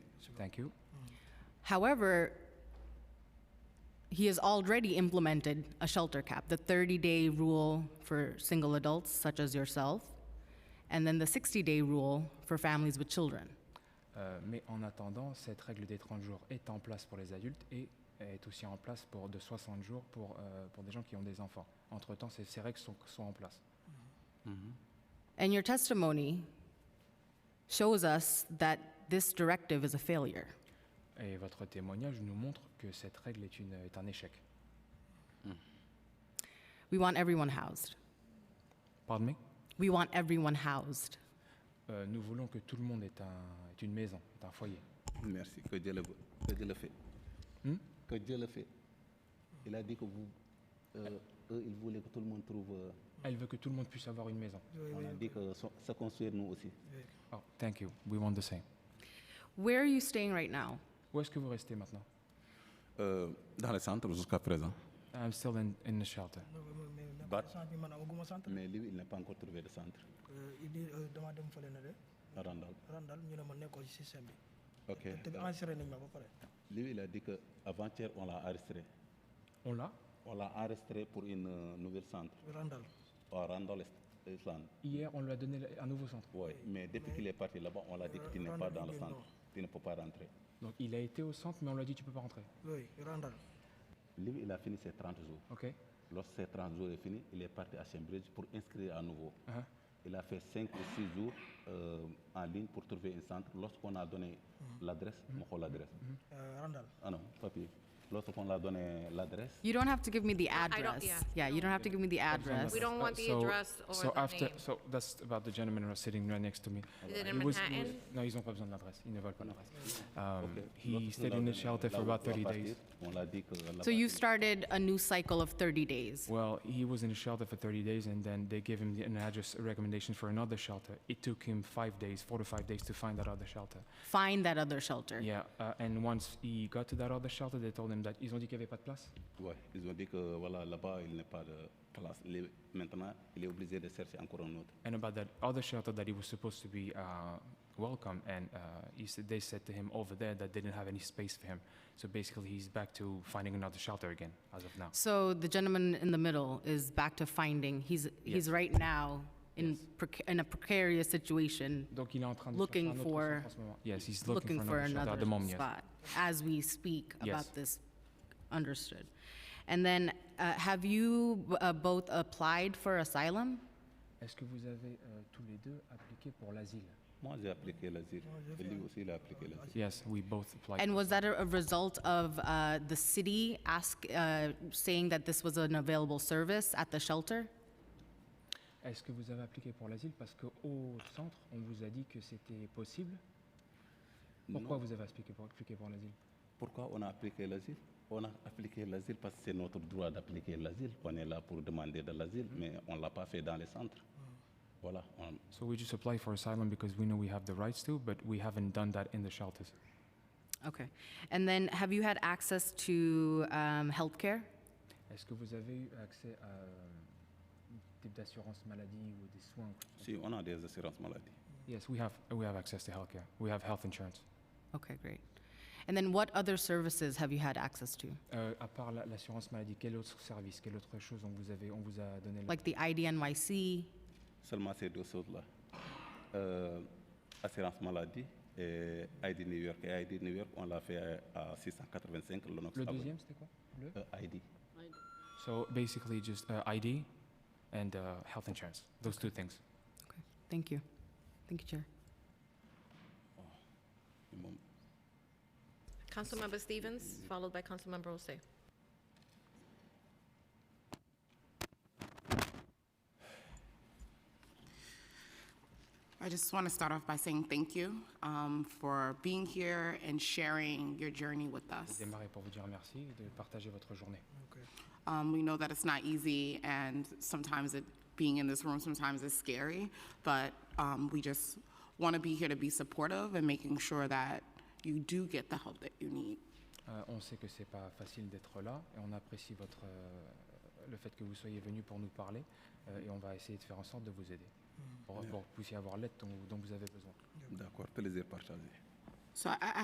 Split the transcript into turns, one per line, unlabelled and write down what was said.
Thank you.
However, he has already implemented a shelter cap, the 30-day rule for single adults such as yourself, and then the 60-day rule for families with children.
Euh, mais en attendant, cette règle des 30 jours est en place pour les adultes et est aussi en place pour de 60 jours pour, euh, pour des gens qui ont des enfants. Entre-temps, ces, ces règles sont, sont en place.
And your testimony shows us that this directive is a failure.
Et votre témoignage nous montre que cette règle est, une, est un échec.
We want everyone housed.
Pardon
We want everyone housed.
Euh, Nous voulons que tout le monde ait, un- ait une maison, ait un foyer.
Merci, que Dieu le, veut- que Dieu le fait.
Hmm?
Que Dieu le fait. Il a dit que vous, euh, eux, ils voulaient que tout le monde trouve. euh,
Elle veut que tout le monde puisse avoir une maison.
on a dit que so- se construire nous aussi.
Oh, thank you. We want the same.
Where are you staying right now?
Où est-ce que vous restez maintenant
Euh, dans le centre jusqu'à présent.
I'm still in, in the shelter.
But-
centre bi man amaguma centre.
Mais lui, il n'a pas encore trouvé de centre.
Euh, il dit euh, dama dem fële na de
à Randall.
Randall ñu ne ma nekkoo ci système bi.
Ok.
te bi enregistré nañ ma ba pare.
Lui, il a dit que avant-hier, on l'a arrêté.
On l'a
On l'a arrêté pour une euh, nouvelle centre
Randall
à Randall Est- Island.
Hier, on lui a donné le- un nouveau centre.
Ouais. Mais depuis qu'il est parti là-bas, on l'a dit que tu n'es pas dans le centre. Tu ne peux pas rentrer.
Donc il a été au centre, mais on lui a dit tu peux pas rentrer.
oui Randall.
Lui, il a fini ses 30 jours.
Ok
Lorsque ces 30 jours est fini, il est parti à Cambridge pour inscrire à nouveau.
Uh-huh.
Il a fait 5 ou 6 jours euh, en ligne pour trouver un centre. Lorsqu'on a donné
Uh-huh.
l'adresse, on prend l'adresse.
Euh, Randall.
Ah non, papier. Lorsqu'on a donné l'adresse,
You don't have to give me the
don't-
address.
yeah,
you don't have to give me the address.
We don't want the
Uh, So-
address or
so
the
after,
name.
So that's about the gentleman who was sitting right next to me.
Is it
He
in
was- he
Manhattan?
was- non, ils n'ont pas besoin de l'adresse. Ils ne veulent pas l'adresse. Um,
Ok.
He
Lorsqu'on
stayed
a
in the
donné
shelter
là
for
où il
about
doit
30
partir,
days.
On l'a dit que là-bas,
So you
il-
started a new cycle of 30 days.
Well, he was in the shelter for 30 days, and then they gave him the, an address recommendation for another shelter. It took him five days, four to five days, to find that other shelter.
Find that other shelter.
Yeah, uh, and once he got to that other shelter, they told him that ils ont dit qu'il n'y avait pas de place.
Ouais, ils ont dit que voilà, là-bas, il n'est pas de place. Il est- maintenant, il est obligé de chercher encore un autre.
And about that other shelter that he was supposed to be uh, welcome, and uh, he said, they said to him over there that they didn't have any space for him. So basically, he's back to finding another shelter again as of now.
So the gentleman in the middle is back to finding, he's, he's right now in, preca- in a precarious situation,
Donc il est en train de
Looking
chercher un autre
for-
centre en ce moment. Yes, he's looking,
looking for
shelter at
another
the moment. yes.
spot, as we speak
Yes.
about this, understood. And then, uh, have you uh, both applied for asylum?
Est-ce que vous avez euh, tous les deux appliqué pour l'asile?
Moi, j'ai appliqué l'asile. Et lui aussi, il a appliqué l'asile.
Yes, we both applied.
And was that a a result of uh, the city ask, uh, saying that this was an available service at the shelter?
Est-ce que vous avez appliqué pour l'asile parce qu'au centre, on vous a dit que c'était possible Pourquoi vous avez appliqué pour, appliqué pour l'asile
Pourquoi on a appliqué l'asile On a appliqué l'asile parce que c'est notre droit d'appliquer l'asile. On est là pour demander de l'asile,
Mm-hmm.
mais on ne l'a pas fait dans les centres.
Mm.
Voilà. on-
So we just apply for asylum because we know we have the rights to, but we haven't done that in the shelters.
Okay. And then, have you had access to um, healthcare?
Est-ce que vous avez eu accès à euh, type d'assurance maladie ou des soins
Si, on a des assurances maladie.
Yes, we have, we have access to healthcare. We have health insurance.
Okay, great. And then what other services have you had access to?
Euh, à part la- l'assurance maladie, quel autre service, quelle autre chose on vous, avait, on vous a donné là
Like the IDNYC?
Seulement ces deux choses-là. Euh, assurance maladie et ID New York. Et ID New York, on l'a fait à 685 Lenox
Le
Avenue.
deuxième, c'était quoi Le
Euh, ID.
So basically just uh, ID and uh, health insurance. Those two things.
Okay, thank you. Thank you, Chair.
Minimum.
Councilmember Stevens, followed by Councilmember Olsay.
I just want to start off by saying thank you um, for being here and sharing your journey with us.
Démarrer pour vous dire merci et de partager votre journée.
Um, we know that it's not easy, and sometimes it, being in this room sometimes is scary, but um, we just want to be here to be supportive and making sure that you do get the help that you need.
Euh, on sait que c'est pas facile d'être là et on apprécie votre, euh, le fait que vous soyez venu pour nous parler euh, et on va essayer de faire en sorte de vous aider pour, pour que vous puissiez avoir l'aide dont, dont vous avez besoin.
D'accord, plaisir partagé.
So I, I